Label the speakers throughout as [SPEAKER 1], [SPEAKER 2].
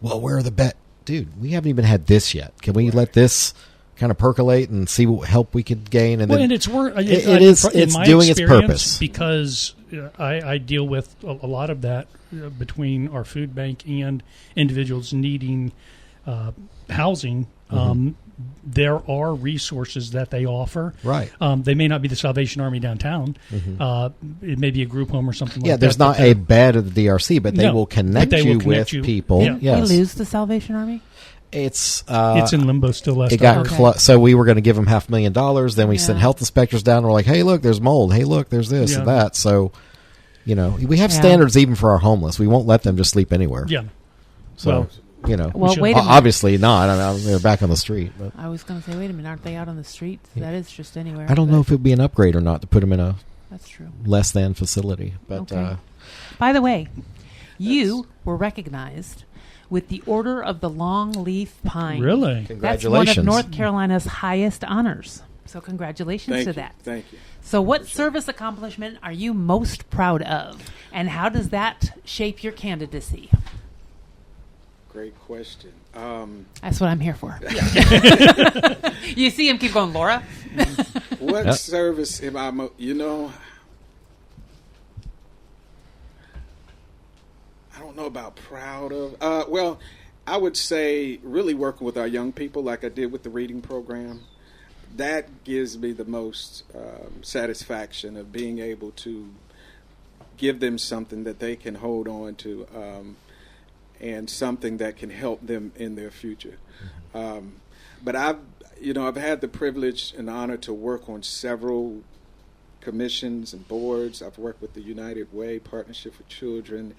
[SPEAKER 1] well, where are the bet? Dude, we haven't even had this yet. Can we let this kind of percolate and see what help we could gain? And
[SPEAKER 2] Well,
[SPEAKER 1] then
[SPEAKER 2] and it's uh, worth. It,
[SPEAKER 1] it is- it's doing its purpose.
[SPEAKER 2] because uh, I, I deal with a, a lot of that uh, between our food bank and individuals needing uh, housing.
[SPEAKER 1] Mm-hmm.
[SPEAKER 2] Um, there are resources that they offer.
[SPEAKER 1] Right. Mm-hmm.
[SPEAKER 2] Um, they may not be the Salvation Army downtown. Uh, it may be a group home or something.
[SPEAKER 1] yeah,
[SPEAKER 2] like
[SPEAKER 1] there's
[SPEAKER 2] that,
[SPEAKER 1] not
[SPEAKER 2] but
[SPEAKER 1] a bed at the DRC, but they
[SPEAKER 2] No,
[SPEAKER 1] will
[SPEAKER 2] but
[SPEAKER 1] connect
[SPEAKER 2] they
[SPEAKER 1] you
[SPEAKER 2] will connect
[SPEAKER 1] with
[SPEAKER 2] you.
[SPEAKER 1] people.
[SPEAKER 2] Yeah.
[SPEAKER 1] Yes,
[SPEAKER 3] They lose the Salvation Army.
[SPEAKER 1] it's uh,
[SPEAKER 2] it's in limbo still. Last
[SPEAKER 1] it got
[SPEAKER 2] I heard.
[SPEAKER 3] Okay.
[SPEAKER 1] clo- so we were going to give them half a million dollars. Then we sent
[SPEAKER 3] Yeah.
[SPEAKER 1] health inspectors down. and We're like, hey, look, there's mold. Hey, look, there's this and
[SPEAKER 2] Yeah.
[SPEAKER 1] that. So, you know, we have
[SPEAKER 3] Yeah.
[SPEAKER 1] standards even for our homeless. We won't let them just sleep anywhere.
[SPEAKER 2] yeah.
[SPEAKER 1] So,
[SPEAKER 2] well,
[SPEAKER 1] you know,
[SPEAKER 3] Well,
[SPEAKER 2] should-
[SPEAKER 3] wait a
[SPEAKER 1] o-
[SPEAKER 3] minute.
[SPEAKER 1] obviously not. I mean, they're back on the street. But
[SPEAKER 3] I was going to say, wait a minute, aren't they out on the streets? That is just anywhere.
[SPEAKER 1] I don't
[SPEAKER 3] but
[SPEAKER 1] know if it would be an upgrade or not to put them in a
[SPEAKER 3] That's true.
[SPEAKER 1] less than facility. But
[SPEAKER 3] Okay.
[SPEAKER 1] uh,
[SPEAKER 3] By the way, you were recognized with the Order of the Long Leaf Pine.
[SPEAKER 2] really.
[SPEAKER 3] That's one
[SPEAKER 1] congratulations.
[SPEAKER 3] of North Carolina's highest honors. So congratulations
[SPEAKER 4] Thank
[SPEAKER 3] to
[SPEAKER 4] you.
[SPEAKER 3] that.
[SPEAKER 4] Thank you.
[SPEAKER 3] So what service accomplishment are you most proud of? And how does that shape your candidacy?
[SPEAKER 4] Great question. Um,
[SPEAKER 3] That's what I'm here for. you see him keep going, Laura?
[SPEAKER 4] what
[SPEAKER 1] Yep.
[SPEAKER 4] service am I? Mo- you know, I don't know about proud of. Uh, well, I would say really working with our young people, like I did with the reading program. That gives me the most um, satisfaction of being able to give them something that they can hold on to um, and something that can help them in their future. Um, but I've, you know, I've had the privilege and honor to work on several commissions and boards. I've worked with the United Way Partnership for Children,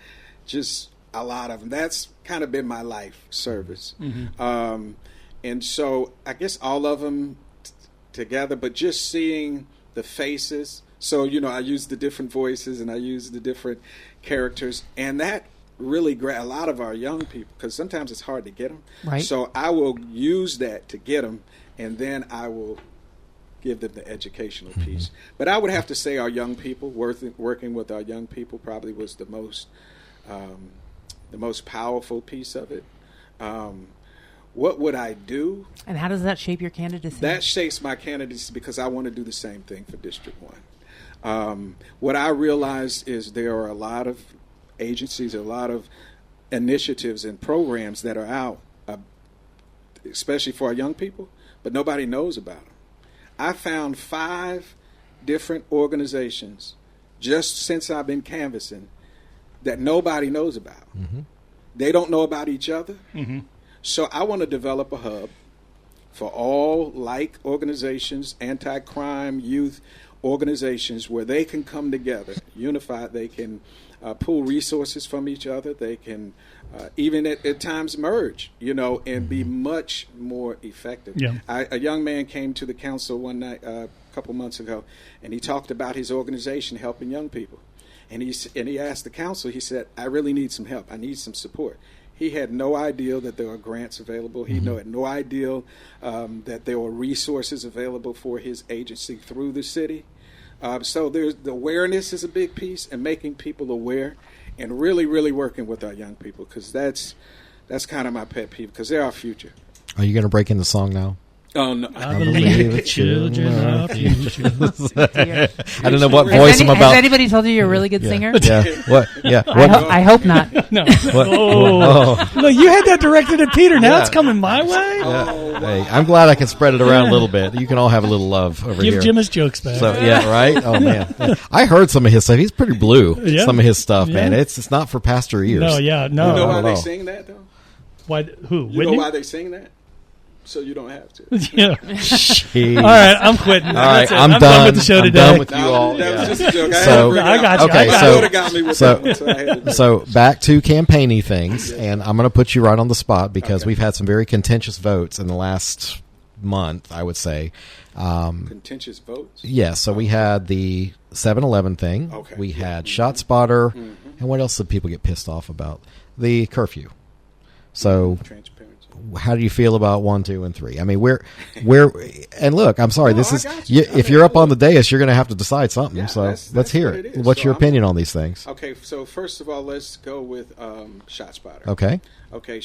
[SPEAKER 4] just a lot of them. That's kind of been my life service. Um, and so I guess all of them t- together, but just seeing the faces. So, you know, I use the different voices and I use the different characters, and that really gra- a lot of our young people because sometimes it's hard to get them
[SPEAKER 3] Right.
[SPEAKER 4] so i will use that to get them and then i will give them the educational piece. But I would have to say our young people, working, working with our young people, probably was the most um, the most powerful piece of it. Um, what would I do?
[SPEAKER 3] And how does that shape your candidacy?
[SPEAKER 4] That shapes my candidates because I want to do the same thing for District One. Um, what I realize is there are a lot of agencies, a lot of initiatives and programs that are out, uh, especially for our young people, but nobody knows about them. I found five different organizations just since I've been canvassing that nobody knows about. They don't know about each other. So I want to develop a hub for all like organizations, anti crime, youth organizations, where they can come together, unified. They can uh, pull resources from each other. They can uh, even at, at times merge, you know, and be much more effective.
[SPEAKER 2] Yeah.
[SPEAKER 4] I, a young man came to the council one night uh, a couple months ago, and he talked about his organization helping young people. And he s- and he asked the council. He said, "I really need some help. I need some support." He had no idea that there were grants available. He no, had no idea um, that there were resources available for his agency through the city. Um, so there's the awareness is a big piece, and making people aware, and really, really working with our young people because that's that's kind of my pet peeve because they're our future.
[SPEAKER 1] are you going to break into song now?
[SPEAKER 4] Oh no,
[SPEAKER 2] I
[SPEAKER 1] believe
[SPEAKER 2] believe the
[SPEAKER 1] it's children
[SPEAKER 2] children
[SPEAKER 1] are
[SPEAKER 2] are future.
[SPEAKER 3] Dear.
[SPEAKER 1] I don't know what
[SPEAKER 4] Has
[SPEAKER 1] voice
[SPEAKER 3] any-
[SPEAKER 1] I'm about.
[SPEAKER 3] Has anybody told you you're a really good singer?
[SPEAKER 1] yeah. What? Yeah.
[SPEAKER 3] I,
[SPEAKER 1] What?
[SPEAKER 3] ho- I hope not.
[SPEAKER 2] No.
[SPEAKER 1] what-
[SPEAKER 2] Oh.
[SPEAKER 1] oh.
[SPEAKER 2] Look, you had that directed at Peter. Now
[SPEAKER 1] Yeah.
[SPEAKER 2] it's coming my way.
[SPEAKER 1] Hey, I'm glad I can spread it around a little bit. You can all have a little love over
[SPEAKER 2] Give
[SPEAKER 1] here.
[SPEAKER 2] Jim his jokes back.
[SPEAKER 1] so yeah, right. Oh man, Yeah. I heard some of his stuff. He's pretty blue.
[SPEAKER 2] Yeah.
[SPEAKER 1] Some of his stuff, man.
[SPEAKER 2] Yeah.
[SPEAKER 1] It's it's not for pastor ears.
[SPEAKER 2] no, yeah, no.
[SPEAKER 4] You know
[SPEAKER 1] I
[SPEAKER 4] why
[SPEAKER 1] don't
[SPEAKER 4] they
[SPEAKER 1] know.
[SPEAKER 4] sing that though?
[SPEAKER 2] Why? Who?
[SPEAKER 4] You know
[SPEAKER 2] Whitney?
[SPEAKER 4] why they sing that? So you don't have to.
[SPEAKER 2] yeah.
[SPEAKER 1] He-
[SPEAKER 2] All right, I'm quitting. All
[SPEAKER 1] right,
[SPEAKER 2] it.
[SPEAKER 1] I'm
[SPEAKER 2] I'm
[SPEAKER 1] done.
[SPEAKER 2] with the show
[SPEAKER 1] I'm
[SPEAKER 2] today.
[SPEAKER 1] done with you
[SPEAKER 4] Nah,
[SPEAKER 1] all.
[SPEAKER 4] that
[SPEAKER 1] yeah.
[SPEAKER 4] was just a joke. I, had
[SPEAKER 1] So-
[SPEAKER 4] to bring it
[SPEAKER 2] I
[SPEAKER 4] up.
[SPEAKER 2] got you,
[SPEAKER 1] Okay, I got
[SPEAKER 4] My
[SPEAKER 1] you.
[SPEAKER 4] daughter got me with
[SPEAKER 1] so-
[SPEAKER 4] that one, so I had to do it.
[SPEAKER 1] So back to campaigny things, and I'm going to put you right on the spot because we've had some very contentious votes in the last month, I would say. Um,
[SPEAKER 4] contentious votes.
[SPEAKER 1] yeah, so we had the 7-Eleven thing.
[SPEAKER 4] Okay. Mm-hmm.
[SPEAKER 1] We
[SPEAKER 4] Yeah.
[SPEAKER 1] had ShotSpotter, and what else did people get pissed off about? The curfew. So
[SPEAKER 4] Transparency.
[SPEAKER 1] how do you feel about one, two, and three? I mean, we're we're and look, I'm sorry,
[SPEAKER 4] No,
[SPEAKER 1] this
[SPEAKER 4] I
[SPEAKER 1] is
[SPEAKER 4] got you.
[SPEAKER 1] you,
[SPEAKER 4] I
[SPEAKER 1] if
[SPEAKER 4] mean,
[SPEAKER 1] you're up on the
[SPEAKER 4] look.
[SPEAKER 1] dais, you're going to have to decide something.
[SPEAKER 4] Yeah,
[SPEAKER 1] so
[SPEAKER 4] that's-
[SPEAKER 1] let's
[SPEAKER 4] that's
[SPEAKER 1] hear
[SPEAKER 4] what
[SPEAKER 1] it.
[SPEAKER 4] it is.
[SPEAKER 1] What's
[SPEAKER 4] So
[SPEAKER 1] your
[SPEAKER 4] I'm-
[SPEAKER 1] opinion on these things?
[SPEAKER 4] Okay, so first of all, let's go with um, ShotSpotter.
[SPEAKER 1] Okay.
[SPEAKER 4] Okay,